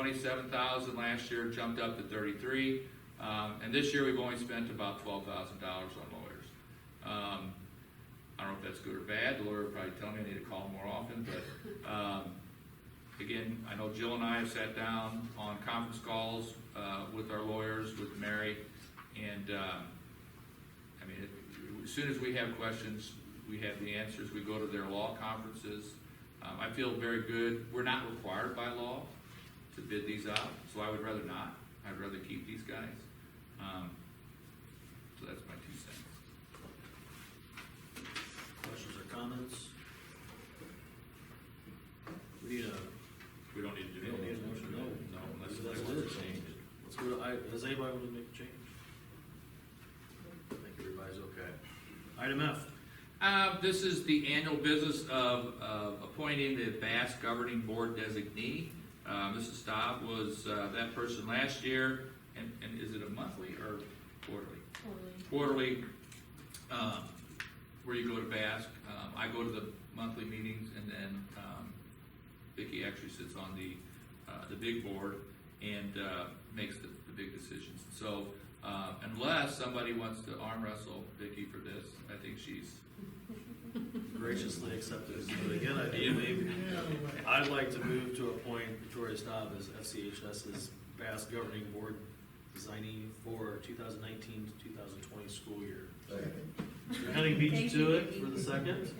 twenty-seven thousand last year, jumped up to thirty-three. Um, and this year, we've only spent about twelve thousand dollars on lawyers. Um, I don't know if that's good or bad, the lawyer would probably tell me I need to call more often, but, um, again, I know Jill and I have sat down on conference calls, uh, with our lawyers, with Mary, and, um, I mean, it- as soon as we have questions, we have the answers, we go to their law conferences. Um, I feel very good, we're not required by law to bid these out, so I would rather not, I'd rather keep these guys. Um, so that's my two cents. Questions or comments? We need a, We don't need to do we don't need anything. a motion, no. No, unless somebody Let's do wants it. to change it. Let's go to, I, does anybody want to make a change? I think everybody's okay. Item F, Uh, this is the annual business of, of appointing the Bass Governing Board designee. Uh, Mrs. Staub was, uh, that person last year, and, and is it a monthly or quarterly? Quarterly, um, where you go to Bass, um, I go to the monthly meetings, and then, um, Vicky actually sits on the, uh, the big board and, uh, makes the, the big decisions. So, uh, unless somebody wants to arm wrestle Vicky for this, I think she's, graciously accepted, but again, I do believe, I'd like to move to appoint Victoria Staub as FCHS's Bass Governing Board designing for 2019 to 2020 school year. Second. Mr. Henning beat you Thank to you, it Vicky. for the second.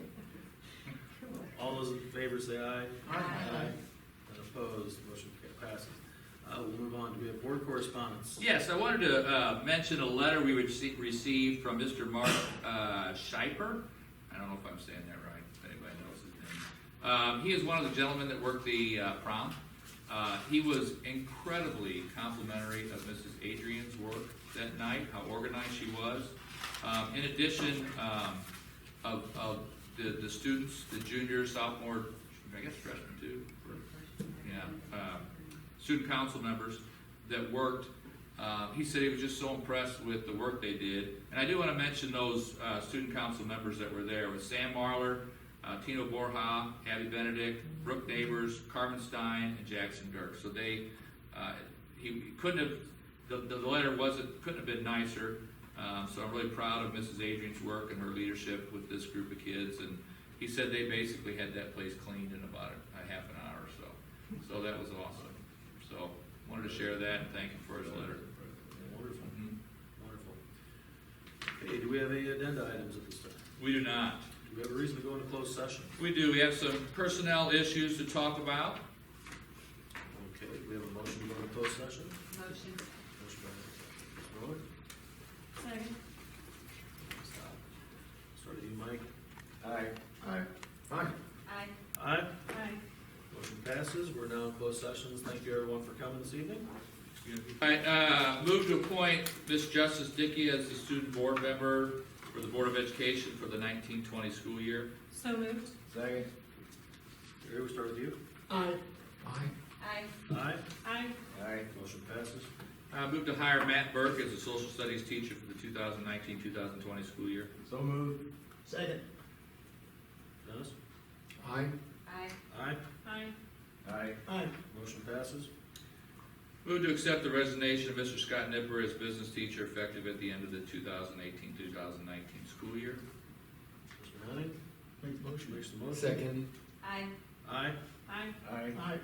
All those in favor say aye. And opposed, motion ca- passes. Uh, we'll move on, do we have board correspondence? Yes, I wanted to uh, mention a letter we rece- received from Mr. Mark uh, Schiper. I don't know if I'm saying that right, if anybody knows his name. Um, He is one of the gentlemen that worked the uh, prom. Uh, He was incredibly complimentary of Mrs. Adrian's work that night, how organized she was. Um, In addition, um, of, of the, the students, the junior, sophomore, I guess freshman too, yeah, um, student council members that worked. Uh, he said he was just so impressed with the work they did. And I do want to mention those uh, student council members that were there with Sam Marlar, uh, Tino Borja, Abby Benedict, Brooke Neighbors, Carmen Stein, and Jackson Dirk. So they, uh, he he couldn't have, the, the letter wasn't, couldn't have been nicer. Um, so I'm really proud of Mrs. Adrian's work and her leadership with this group of kids. And he said they basically had that place cleaned in about a, a half an hour or so. So that was awesome. So wanted to share that and thank him for his letter. Mm-hmm. Wonderful, wonderful. Okay, do we have any addenda items at this time? We do not. Do we have a reason to go into closed session? We do. We have some personnel issues to talk about. Okay, we have a motion to go into closed session. Motion. Motion by Ms. Miller, Second. stop. Start with you, Mike. Aye. Aye. Aye. Aye. Aye. Aye. Motion passes. We're now in closed sessions. Thank you everyone for coming this evening. All right, uh, move to appoint Miss Justice Dickey as the student board member for the Board of Education for the nineteen twenty school year. So moved. Second. Gary, we start with you. Aye. Aye. Aye. Aye. Aye. Aye. Motion passes. Uh, move to hire Matt Burke as a social studies teacher for the 2019-2020 school year. So moved. Second. Dennis? Aye. Aye. Aye. Aye. Aye. Aye. Motion passes. Move to accept the resignation of Mr. Scott Nipper as business teacher effective at the end of the 2018-2019 school year. Mr. Henning Make the motion. makes the motion. Second. Aye. Aye. Aye. Aye. Aye.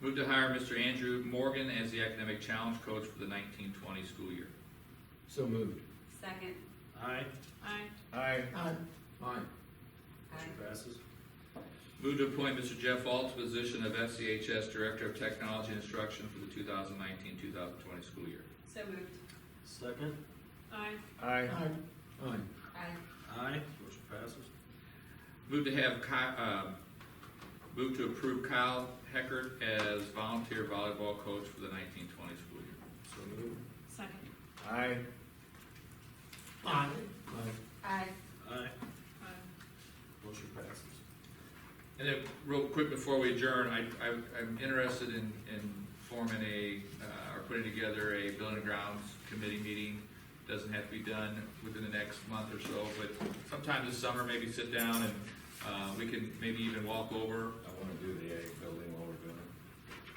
Move to hire Mr. Andrew Morgan as the academic challenge coach for the 1920 school year. So moved. Second. Aye. Aye. Aye. Aye. Aye. Aye. Motion passes. Move to appoint Mr. Jeff Alt to position of FCHS Director of Technology Instruction for the 2019-2020 school year. So moved. Second. Aye. Aye. Aye. Aye. Aye. Aye. Motion passes. Move to have Ky- um, move to approve Kyle Heckert as volunteer volleyball coach for the 19-20 school year. So moved. Second. Aye. Aye. Aye. Aye. Aye. Motion passes. And then, real quick before we adjourn, I, I, I'm interested in, in forming a, uh, or putting together a building and grounds committee meeting. Doesn't have to be done within the next month or so, but sometime this summer, maybe sit down and, uh, we can maybe even walk over. I wanna do the ag building